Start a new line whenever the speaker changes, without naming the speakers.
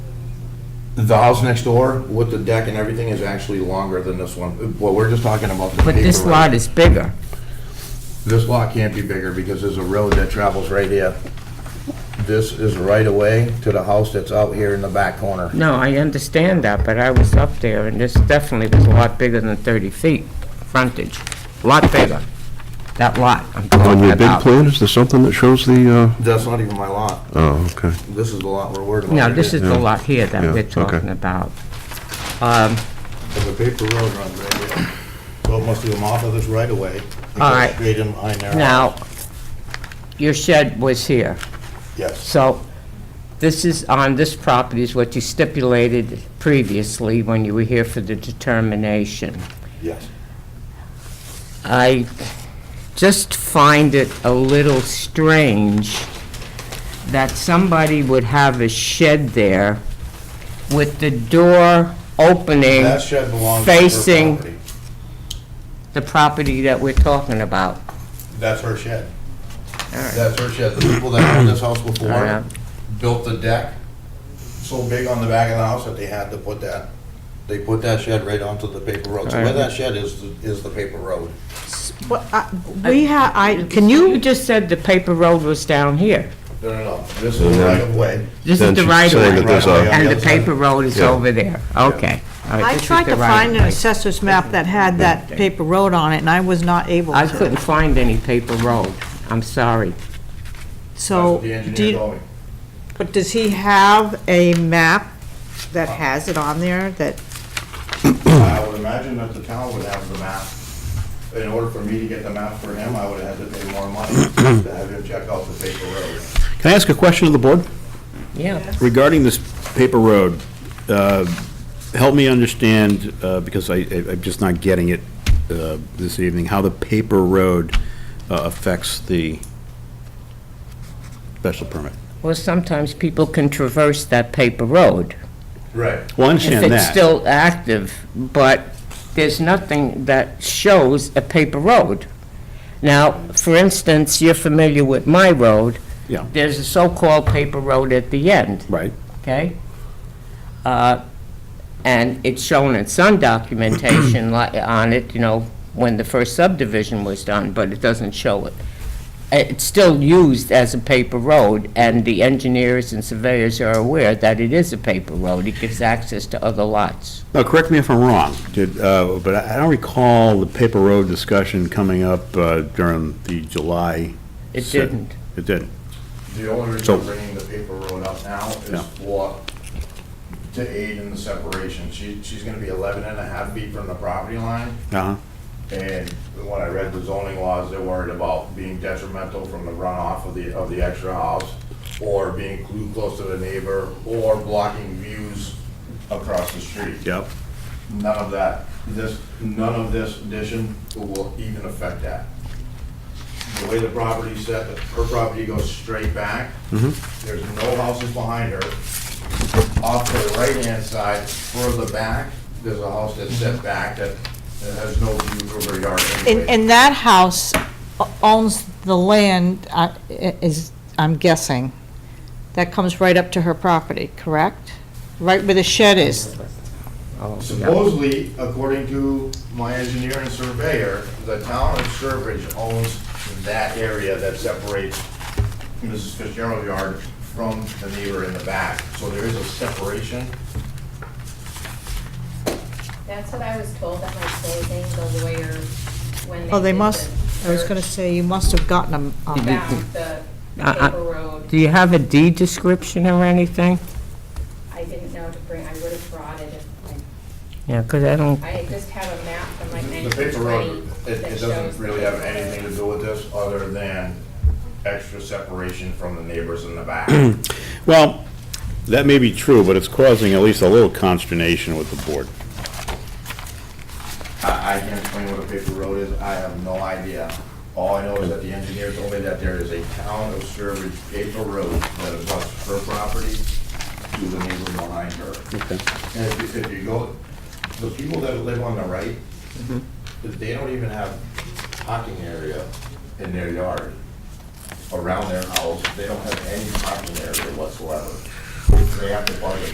the house next door with the deck and everything is actually longer than this one. Well, we're just talking about the
But
paper
this
road.
lot is bigger.
This lot can't be bigger because there's a road that travels right here. This is right away to the house that's out here in the back corner.
No, I understand that, but I was up there, and this definitely was a lot bigger than 30 feet frontage. Lot bigger. That lot I'm
On
talking
your big
about.
plan, is there something that shows the, uh,
That's not even my lot.
oh, okay.
This is the lot we're working on.
No, this is the
Yeah.
lot here that
Yeah,
we're
okay.
talking about. Um,
There's a paper road runs right here. So it must be come off of this right away. It
All
goes
right.
Straight in behind there.
Now, your shed was here,
Yes,
so this is, on this property is what you stipulated previously when you were here for the determination.
yes.
I just find it a little strange that somebody would have a shed there with the door opening
That shed belongs to her
facing-
property.
the property that we're talking about.
That's her shed.
right.
That's her shed. The people that owned this house
All right.
before built the deck so big on the back of the house that they had to put that, they put that shed right onto the paper road. So
All
where
right.
that shed is, is the paper road.
Well, I- we have, I, can
You
you,
just said the paper road was down here.
No, no, no. This is the right of way.
This is
Then
the
she's
right
saying
of
that
way,
there's a-
and
Yeah,
the
that's right.
paper road is
Yeah.
over there. Okay. All right,
I
this is
tried
the
to
right
find an
of way.
assessor's map that had that paper road on it, and I was not able
I
to.
couldn't find any paper road. I'm sorry.
So,
That's what the
do
engineer
you-
told me.
but does he have a map that has it on there that,
I would imagine that the town would have the map. In order for me to get the map for him, I would have had to pay more money to have him check out the paper road.
Can I ask a question of the board
Yeah.
regarding this paper road? Uh, Help me understand, uh, because I, I- I'm just not getting it uh, this evening, how the paper road uh, affects the special permit.
Well, sometimes people can traverse that paper road.
Right.
Well, I
if
understand
it's
that.
still active, but there's nothing that shows a paper road. Now, for instance, you're familiar with my road.
Yeah,
There's a so-called paper road at the end,
right.
okay? Uh, And it's shown in some documentation li- on it, you know, when the first subdivision was done, but it doesn't show it. Uh, It's still used as a paper road, and the engineers and surveyors are aware that it is a paper road. It gives access to other lots.
Now, correct me if I'm wrong, did, uh, but I I don't recall the paper road discussion coming up uh, during the July.
It
se-
didn't.
It didn't.
The only reason
So-
I'm bringing the paper road up now
Yeah.
is for, to aid in the separation. She, she's gonna be 11 and a half feet from the property line.
Uh-huh.
And when I read the zoning laws, they're worried about being detrimental from the runoff of the, of the extra house, or being too close to the neighbor, or blocking views across the street.
Yep.
None of that, this, none of this addition will even affect that. The way the property's set, her property goes straight back. There's no houses behind her. Off to the right-hand side, further back, there's a house that's set back that, that has no view from her yard
and,
anyway.
and that house owns the land, uh, is, I'm guessing, that comes right up to her property, correct? Right where the shed is.
Supposedly, according to my engineer and surveyor, the town of Sturbridge owns that area that separates Mrs. Fitzgerald Yard from the neighbor in the back. So there is a separation.
That's what I was told at my closing, the lawyer, when they.
Oh, they
did
must,
the
I was gonna
search,
say, you must have gotten them. um,
Found the the
Uh, uh,
paper road.
Do you have a deed description or anything?
I didn't know to bring, I would have brought it if, I-
Yeah, because I don't,
I just have a map from like
The
nineteen
paper road,
twenty.
it, it doesn't really have anything to do with this other than extra separation from the neighbors in the back.
Well, that may be true, but it's causing at least a little consternation with the board.
I, I can't explain what a paper road is, I have no idea. All I know is that the engineer told me that there is a town of Sturbridge paper road that abuts her property to the neighbor behind her. And if you, if you go, the people that live on the right, they don't even have parking area in their yard. Around their house, they don't have any parking area whatsoever. They have to park it